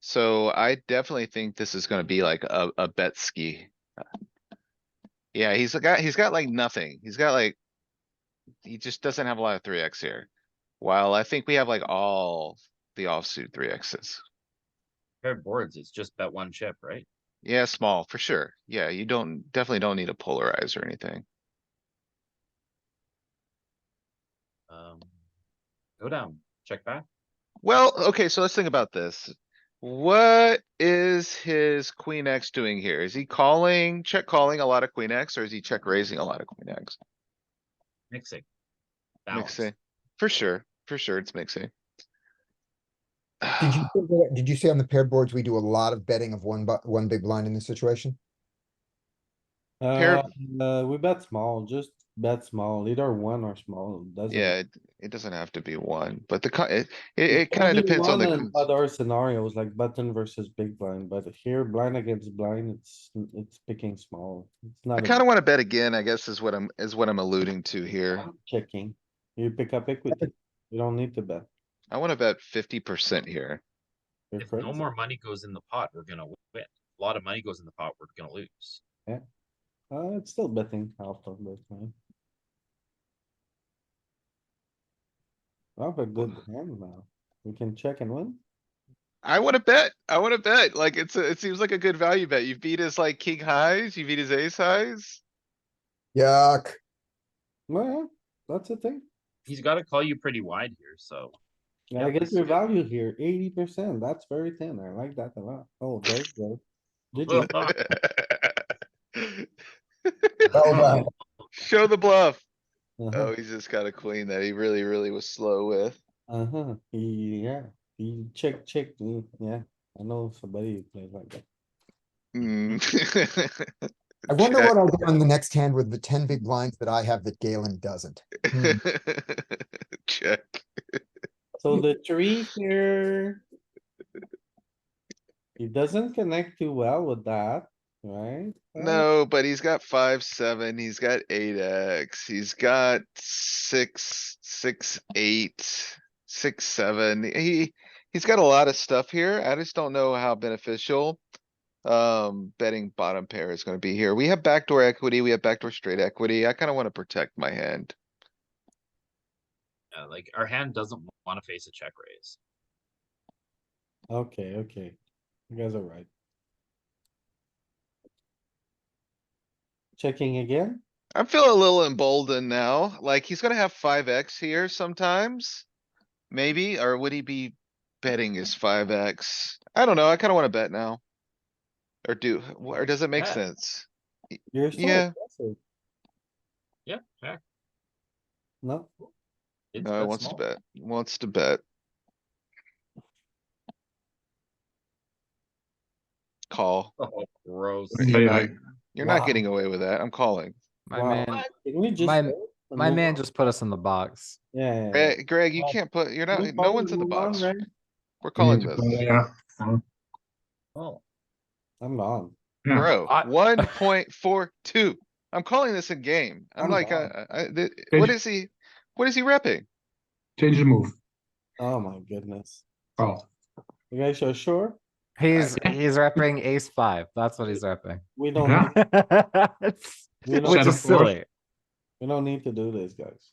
So I definitely think this is gonna be like a, a bet ski. Yeah, he's got, he's got like nothing. He's got like. He just doesn't have a lot of three X here. While I think we have like all the offsuit three Xs. Pair of boards, it's just bet one chip, right? Yeah, small, for sure. Yeah, you don't, definitely don't need a polarize or anything. Um, go down, check back. Well, okay, so let's think about this. What is his queen X doing here? Is he calling, check calling a lot of queen X or is he check raising a lot of queen X? mixing. Balance. Mixing, for sure, for sure, it's mixing. Did you, say that- did you say on the paired boards, we do a lot of betting of one bu- one big blind in this situation? Pair Uh, uh, we bet small, just bet small, either one or small, doesn't. Yeah, it, it doesn't have to be one, but the, co- it, it, It it can kinda be depends on one the, in Other scenarios like button versus big blind, but here blind against blind, it's, it's picking small. It's I not kinda wanna bet again, I guess is what I'm, is what I'm alluding to here. Uh-huh. about checking. You pick up equity. You don't need to bet. I wanna bet fifty percent here. You're If no crazy. more money goes in the pot, we're gonna win. A lot of money goes in the pot, we're gonna lose. Uh, it's still betting half of this, man. I have a good hand now. We can check and win. I wanna bet, I wanna bet, like, it's, a- it seems like a good value bet. You beat his like king highs, you beat his ace highs. Yuck. Well, that's the thing. He's gotta call you pretty wide here, so. Yeah, I Yep. guess your value here, eighty percent, that's very thin, I like that a lot, oh, there you go. Did you, Well done. Show the bluff. Oh, uh-huh, he's just got a queen that he really, really was slow with. uh-huh, yeah, you check, check, mm, yeah, I know somebody who plays like that. Mm. I wonder Check. what I'll do on the next hand with the ten big blinds that I have that Galen doesn't. Hmm. Check. So the tree here. He doesn't connect too well with that, right? No, but he's got five, seven, he's got eight X, he's got six, six, eight, six, seven. He, he's got a lot of stuff here. I just don't know how beneficial. Um, betting bottom pair is gonna be here. We have backdoor equity, we have backdoor straight equity. I kinda wanna protect my hand. Yeah, like our hand doesn't wanna face a check raise. Okay, okay, you guys are right. Checking again? I'm feeling a little emboldened now, like he's gonna have five X here sometimes. Maybe, or would he be betting his five X? I don't know, I kinda wanna bet now. Or do, or does it make Yeah. sense? You're still Yeah. aggressive. Yeah, check. No, It's No, he bet Oh, wants to small. bet, wants to bet. Call. Oh, gross. You're not- you're not Wow. getting away with that, I'm calling. My Wow. man, What? Can we just? my- go and my move man on? just put us in the box. Yeah, Yeah. yeah. Greg, Greg, you Wow. can't put, you're not, Move no on, one's in the move on, box. right? We're calling this. Oh, I'm on. Bro, I- one point four two. I'm calling this a game. I'm I'm like, down. uh, I, th- what Change- is he? What is he repping? Change the move. Oh my goodness. Oh, You guys are sure? He's he's repping ace five. That's what he's repping. We don't, Yeah. need- we Which don't, Shadow is force. silly. we don't need to do this, guys.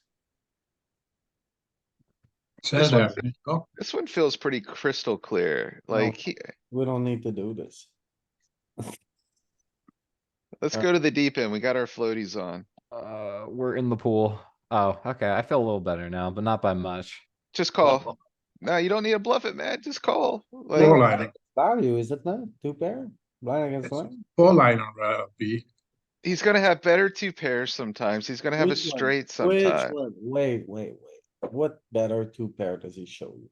This says one- there. There you go. This one feels pretty crystal clear. Like, he- We don't need to do this. let's Uh, go to the deep end. We got our floaties on. Uh, we're in the pool. Oh, okay. I feel a little better now, but not by much. Just bluff. call. No, you don't need to bluff it, man. Just call. Four Like, liner, Value, is it not? Two pair? Blind against Yes. blind? four liner, uh, B. he's gonna have better two pairs sometimes. He's gonna have a Which one? straight Which sometime. one? Wait, wait, wait. What better two pair does he show you?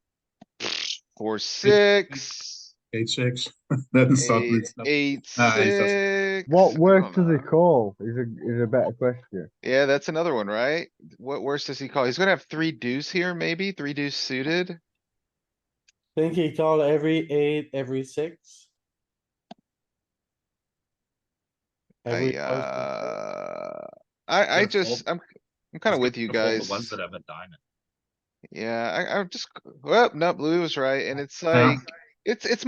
Four, six, Eight, six. Then suddenly. eight, it's not- eight, Nah, he's just- six. What I worse don't does know. it call is a, is a better question. Yeah, that's another one, right? What worse does he call? He's gonna have three deuce here, maybe? Three deuce suited? Think he called every eight, every six? Every I, five, six, uh, I, I Gonna fold. just, I'm, I'm kinda He's with you gonna fold guys. The ones that have a diamond. Yeah, I, I'm just, well, no, Louis was right, and it's Yeah. like, it's, it's